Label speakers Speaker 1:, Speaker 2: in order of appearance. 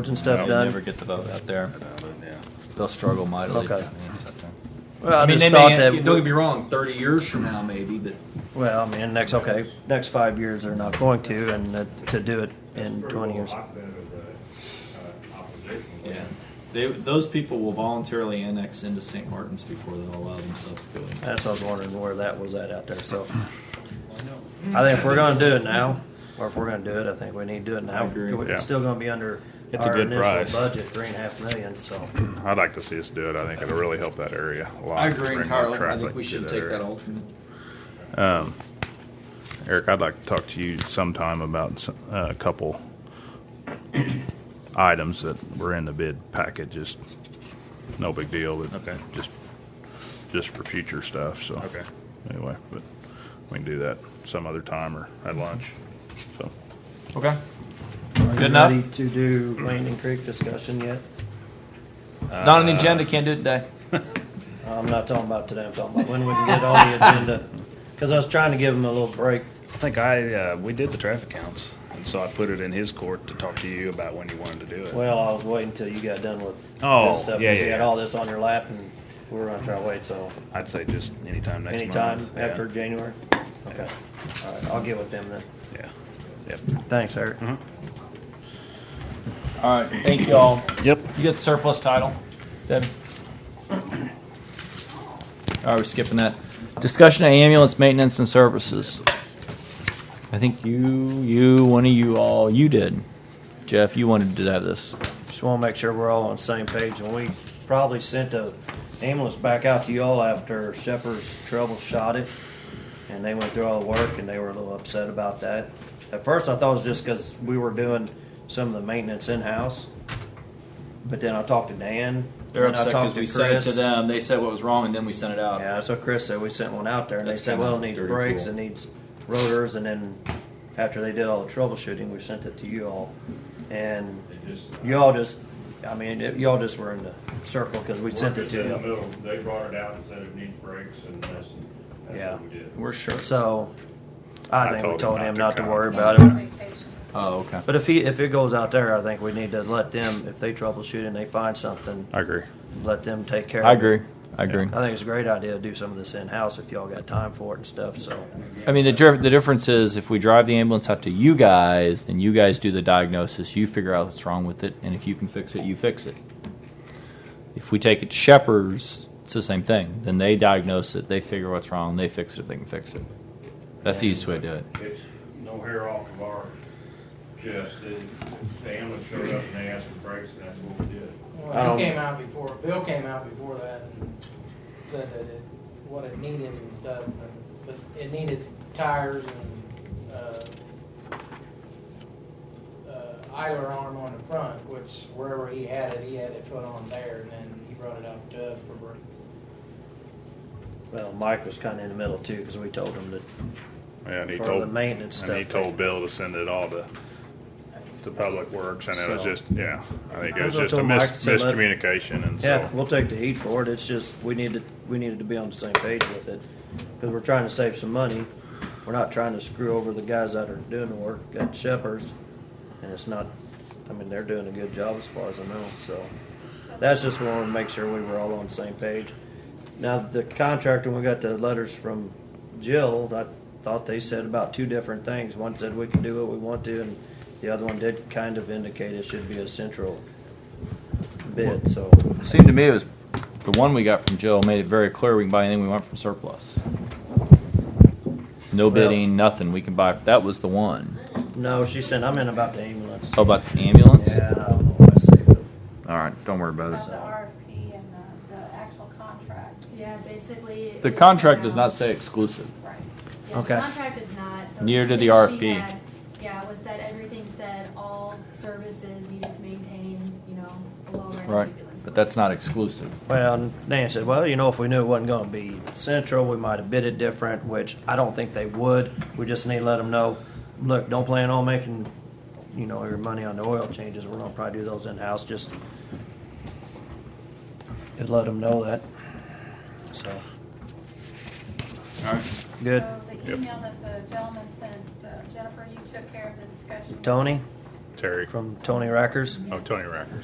Speaker 1: roads and stuff
Speaker 2: They'll never
Speaker 1: done?
Speaker 2: get the vote out there.
Speaker 3: Yeah.
Speaker 2: They'll struggle mightily.
Speaker 1: Okay.
Speaker 2: I mean, so-
Speaker 1: Well, I
Speaker 4: I mean,
Speaker 1: just
Speaker 4: they
Speaker 1: thought
Speaker 4: may,
Speaker 1: that-
Speaker 4: don't get me wrong, 30 years from now, maybe, but
Speaker 1: Well, I mean, next, okay, next five years they're not going to, and that- to do it in twenty years.
Speaker 2: Yeah, they, those people will voluntarily annex into St. Martin's before they'll allow themselves to go in.
Speaker 1: That's what I was wondering where that was at out there, so. I think if we're gonna do it now, or if we're gonna do it, I think we need to do it
Speaker 2: I
Speaker 1: now.
Speaker 2: agree.
Speaker 1: We're
Speaker 5: Yeah.
Speaker 1: still gonna be under
Speaker 5: It's a
Speaker 1: our
Speaker 5: good
Speaker 1: initial
Speaker 5: price.
Speaker 1: budget, three and a half million, so.
Speaker 5: I'd like to see us do it. I think it'll really help that area a lot.
Speaker 4: I agree
Speaker 5: Bring more
Speaker 4: entirely. I
Speaker 5: traffic
Speaker 4: think we
Speaker 5: to
Speaker 4: should take
Speaker 5: area.
Speaker 4: that alternate.
Speaker 5: Um, Eric, I'd like to talk to you sometime about s- uh, a couple items that were in the bid packet. Just no big deal, but
Speaker 2: Okay.
Speaker 5: just just for future stuff. So
Speaker 2: Okay.
Speaker 5: Anyway, but we can do that some other time or at lunch. So
Speaker 2: Okay.
Speaker 1: Are you
Speaker 2: enough?
Speaker 1: ready to do Landing Creek discussion yet?
Speaker 2: Uh,
Speaker 4: Not on the agenda, can't do it today.
Speaker 1: I'm not talking about today, I'm talking about when we can get on the agenda. Cause I was trying to give them a little break.
Speaker 6: I think I, uh, we did the traffic counts, and so I put it in his court to talk to you about when you wanted to do it.
Speaker 1: Well, I was waiting till you got done with
Speaker 6: Oh,
Speaker 1: this stuff.
Speaker 6: yeah,
Speaker 1: 'cause You
Speaker 6: yeah,
Speaker 1: had
Speaker 6: yeah.
Speaker 1: all this on your lap and we were gonna try to wait, so
Speaker 6: I'd say just anytime next month.
Speaker 1: anytime
Speaker 6: Yeah.
Speaker 1: after January? Okay, all right, I'll get with them then.
Speaker 6: Yeah, yep.
Speaker 1: Thanks, Eric.
Speaker 6: Mm-hmm.
Speaker 4: All right, thank you all.
Speaker 6: Yep.
Speaker 4: You get surplus title, Deb. All right, Oh, we're skipping that. Discussion of ambulance maintenance and services. I think you, you, one of you all, you did. Jeff, you wanted to have this.
Speaker 1: Just wanna make sure we're all on the same page, and we probably sent a ambulance back out to y'all after Shepherd's trouble shot it. And they went through all the work, and they were a little upset about that. At first, I thought it was just because we were doing some of the maintenance in-house. But then I talked to Dan.
Speaker 2: They're
Speaker 1: and then I
Speaker 2: upset because
Speaker 1: talked
Speaker 2: we sent it to
Speaker 1: Chris.
Speaker 2: them, they said what was wrong, and then we sent it out.
Speaker 1: Yeah, that's what Chris said. We sent one out there and they
Speaker 2: That's
Speaker 1: said,
Speaker 2: kinda
Speaker 1: well, it needs
Speaker 2: dirty
Speaker 1: brakes,
Speaker 2: cool.
Speaker 1: it needs rotors, and then after they did all the troubleshooting, we sent it to you all. And you all just, I mean, it- you all just were in the circle because we sent it to
Speaker 7: Workers in the
Speaker 1: you.
Speaker 7: middle, they brought it out and said it needs brakes and that's, that's
Speaker 1: Yeah.
Speaker 7: what we did.
Speaker 2: We're sure.
Speaker 1: So I
Speaker 5: I
Speaker 1: think we told
Speaker 5: told him not
Speaker 1: him
Speaker 5: to
Speaker 1: not to
Speaker 5: come.
Speaker 1: worry about it.
Speaker 2: Oh, okay.
Speaker 1: But if he, if it goes out there, I think we need to let them, if they troubleshoot and they find something,
Speaker 5: I agree.
Speaker 1: let them take care of it.
Speaker 4: I agree, I agree.
Speaker 1: I think it's a great idea to do some of this in-house if y'all got time for it and stuff, so.
Speaker 4: I mean, the, dir- the difference is if we drive the ambulance out to you guys, then you guys do the diagnosis, you figure out what's wrong with it, and if you can fix it, you fix it. If we take it to Shepherd's, it's the same thing. Then they diagnose it, they figure what's wrong, they fix it, they can fix it. That's the easiest way to do it.
Speaker 7: It's no hair off of our chest, and the ambulance showed up and they asked for brakes and that's what we did.
Speaker 1: I
Speaker 8: Well,
Speaker 1: don't-
Speaker 8: he came out before, Bill came out before that and said that it, what it needed and stuff, and- but it needed tires and, uh, uh, idler arm on the front, which wherever he had it, he had it put on there, and then he brought it up to us for brakes.
Speaker 1: Well, Mike was kind of in the middle too, because we told him that
Speaker 5: Yeah, and he
Speaker 1: For
Speaker 5: told
Speaker 1: the maintenance
Speaker 5: and he
Speaker 1: stuff.
Speaker 5: told Bill to send it all to to Public Works, and it was
Speaker 1: So-
Speaker 5: just yeah. I think it
Speaker 1: I
Speaker 5: was
Speaker 1: was
Speaker 5: just a
Speaker 1: told
Speaker 5: mis-
Speaker 1: Mike to send it.
Speaker 5: miscommunication, and
Speaker 1: Yeah,
Speaker 5: so
Speaker 1: we'll take the heat for it, it's just, we need to, we needed to be on the same page with it, because we're trying to save some money. We're not trying to screw over the guys that are doing the work at Shepherd's, and it's not, I mean, they're doing a good job as far as I know, so. That's just wanted to make sure we were all on the same page. Now, the contractor, when we got the letters from Jill, I thought they said about two different things. One said we can do what we want to, and the other one did kind of indicate it should be a central bid, so.
Speaker 4: Seemed to me it was the one we got from Jill made it very clear we can buy anything we want from surplus. No bidding, nothing. We can buy. That was the one.
Speaker 1: No, she said, I'm in about the ambulance.
Speaker 4: Oh, about the ambulance?
Speaker 1: Yeah, I don't know what I said, but
Speaker 4: All right, don't worry about it.
Speaker 9: About the RFP and the, the actual contract.
Speaker 10: Yeah, basically. it
Speaker 4: The
Speaker 10: was
Speaker 4: contract does
Speaker 10: around-
Speaker 4: not say exclusive.
Speaker 10: Right. Yeah, the
Speaker 1: Okay.
Speaker 10: Contract does not. The
Speaker 4: Near to the
Speaker 10: language she
Speaker 4: RFP.
Speaker 10: had, Yeah, was that everything said all services needed to maintain, you know, a low rate.
Speaker 4: Right, but that's not exclusive.
Speaker 1: Well, Dan said, well, you know, if we knew it wasn't going to be central, we might have bid it different, which I don't think they would. We just need to let them know, look, don't plan on making, you know, your money on the oil changes. We're going to probably do those in-house, just just let them know that. So,
Speaker 2: All right.
Speaker 1: good.
Speaker 9: So the email that the gentleman sent, uh, Jennifer, you took care of the discussion.
Speaker 1: Tony?
Speaker 5: Terry.
Speaker 1: from Tony Rackers.
Speaker 5: Oh, Tony Racker.